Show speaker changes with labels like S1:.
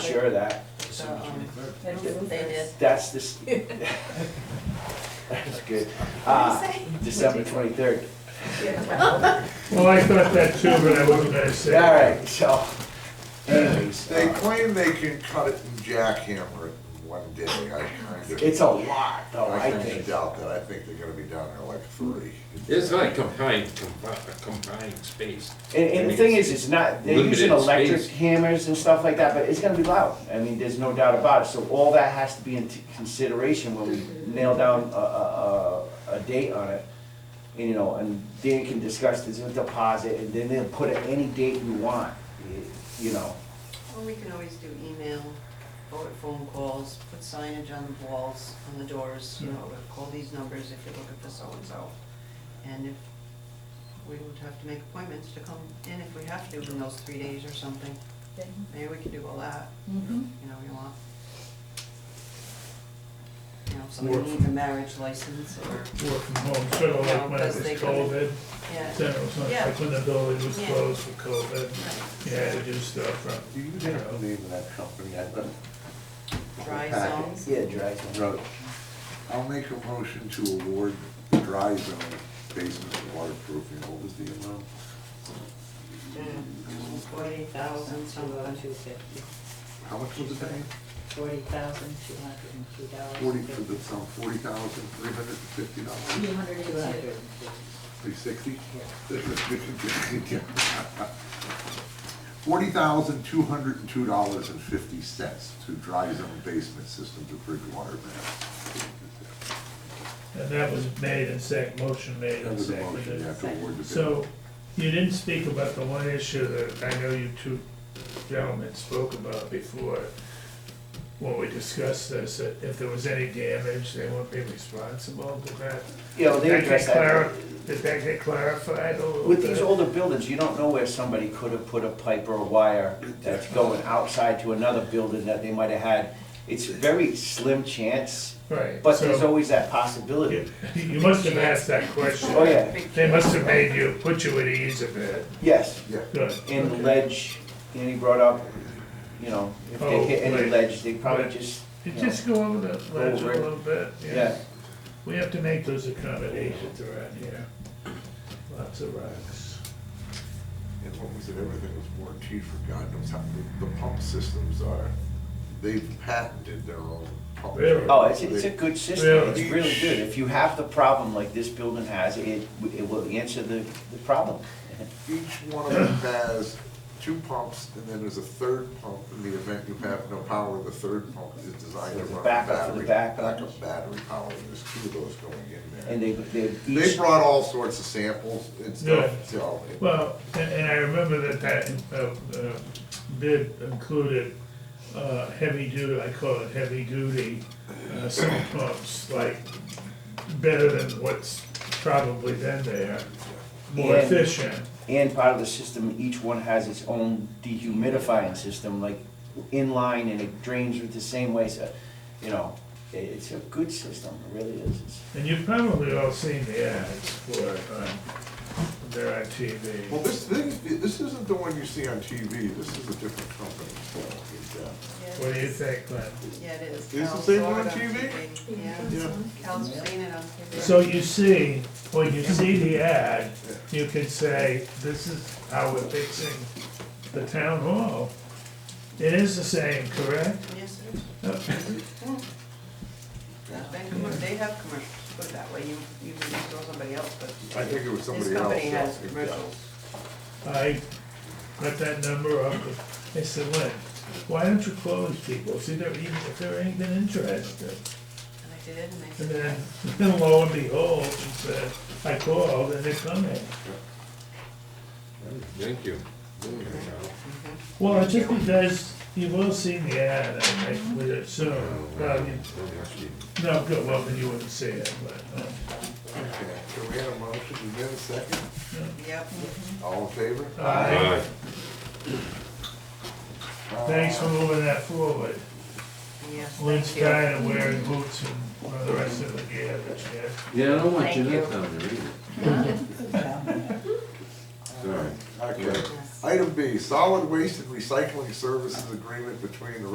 S1: Sure of that,
S2: December
S3: Um,
S2: twenty-third.
S3: They did.
S1: that's this. That's good. Uh, December twenty-third.
S4: Well, I thought that too, but I wasn't gonna
S1: All
S4: say.
S1: right, so anyways,
S5: They
S1: uh,
S5: claim they can cut it and jackhammer it in one day, I kind of.
S1: it's a lot though, I
S5: I kind of
S1: think.
S5: doubt that, I think they're gonna be down there like three.
S6: It's like combined, combi- combined space.
S1: And, and the thing is, it's not, they're using
S6: Limited
S1: electric
S6: space.
S1: hammers and stuff like that, but it's gonna be loud. I mean, there's no doubt about it, so all that has to be into consideration when we nail down a, a, a, a date on it. And, you know, and Dan can discuss this with deposit, and then they'll put it any date you want, y- you know.
S3: Well, we can always do email, or phone calls, put signage on the walls, on the doors, you know, call these numbers if you're looking for so-and-so. And if, we would have to make appointments to come in if we have to in those three days or something. Maybe we could do all that,
S7: Mm-hmm.
S3: you know, you want. You know, if somebody
S4: Work.
S3: needs a marriage license or,
S4: Work from home, sort of like when it was COVID,
S3: yeah.
S4: then it was not- like when the building was closed for COVID,
S3: right.
S4: you had to do stuff from.
S5: Do you know the name of that company? I don't-
S3: Dry
S5: Packet.
S3: zones.
S1: Yeah, dry zone.
S5: Road. I'll make a motion to award the dry zone basement waterproofing, what was the amount?
S3: Forty thousand, something.
S5: How much was it paying?
S7: Forty thousand, two hundred and two dollars.
S5: Forty, for the, some forty thousand, three hundred and fifty dollars,
S7: Two hundred and two.
S5: three sixty? Forty thousand, two hundred and two dollars and fifty cents to dry zone basement system to Bridgewater, Mass.
S4: And that was made and sec, motion made
S5: That
S4: and
S5: was a motion, you
S4: seconded.
S5: have to award the bid.
S4: So, you didn't speak about the one issue that I know you two gentlemen spoke about before, when we discussed this, that if there was any damage, they wouldn't be responsible, did that,
S1: You know, they
S4: That
S1: address
S4: get
S1: that.
S4: clar- did that get clarified a little bit?
S1: With these older buildings, you don't know where somebody could have put a pipe or a wire that's going outside to another building that they might have had. It's a very slim chance,
S4: Right,
S1: but
S4: so-
S1: there's always that possibility.
S4: You must have asked that
S1: Oh,
S4: question.
S1: yeah,
S4: They must have made you, put you at ease a bit.
S1: yes,
S5: Yeah.
S4: Good.
S1: and the
S4: Okay.
S1: ledge, and he brought up, you know, if they
S4: Oh,
S1: hit any
S4: right.
S1: ledge, they probably
S4: Right.
S1: just,
S4: You Just go over the ledge a
S1: Over it.
S4: little bit,
S1: Oh, yeah.
S4: yeah. We have to make those accommodations around here. Lots of rocks.
S5: And when we said everything was warranted for God knows how, the, the pump systems are, they've patented their own pump.
S4: Really?
S1: Oh, it's, it's a good system,
S4: Really?
S1: it's really good. If you have the problem like this building has, it, it will answer the, the problem.
S5: Each one of them has two pumps, and then there's a third pump in the event you have no power, the third pump is designed to
S1: There's a
S5: run a
S1: backup for
S5: battery.
S1: the backup.
S5: Backup battery power, and there's two of those going in there.
S1: And they, they
S5: They
S1: each,
S5: brought all sorts of samples and
S4: Yeah.
S5: stuff, so. it-
S4: Well, and, and I remember that that, uh, uh, bid included, uh, heavy duty, I call it heavy duty, uh, sump pumps, like, better than what's probably been there, more
S1: And-
S4: efficient.
S1: and part of the system, each one has its own dehumidifying system, like inline and it drains with the same way, so, you know, it, it's a good system, it really is. It's-
S4: And you've probably all seen the ads for um, it on, they're on TV.
S5: Well, this thing, this isn't the one you see on TV, this is a different company. so it's, uh,
S4: What do you think, Glenn?
S3: Yeah, it is.
S5: Is the
S3: Cal's
S5: same
S3: saw
S5: one
S3: it
S5: on TV?
S3: Yeah,
S5: Yeah.
S3: Cal's seen it on TV.
S4: So you see, when you see the ad, you can say, this is how we're fixing the town hall. It is the same, correct?
S3: Yes, it is. They commer- they have commercials, put it that way, you, you can throw somebody else, but
S5: I think it
S3: this
S5: was somebody else.
S3: company has
S5: yeah.
S3: commercials.
S4: I got that number up, I said, Lynn, why don't you close people, see, they're even, if they're even interested.
S3: And they did, and they
S4: And
S3: said,
S4: then, then lo and behold, it said, I called and they're coming.
S6: Thank you.
S3: Mm-hmm.
S4: Well, it's just because you've all seen the ad, I think, with it, so, well, you- no, good, well, then you wouldn't see it, but, uh,
S5: Okay, so we had a motion, is there a second?
S3: yep,
S5: All in favor?
S4: Aye.
S6: Aye.
S4: Thanks for moving that forward.
S3: yes,
S4: Lynn's
S3: thank you.
S4: tired of wearing boots and uh, the rest of the gear that she has.
S6: Yeah, I don't
S7: want you to Thank
S6: down there Sorry.
S5: Okay. Item B, solid waste and recycling services agreement between the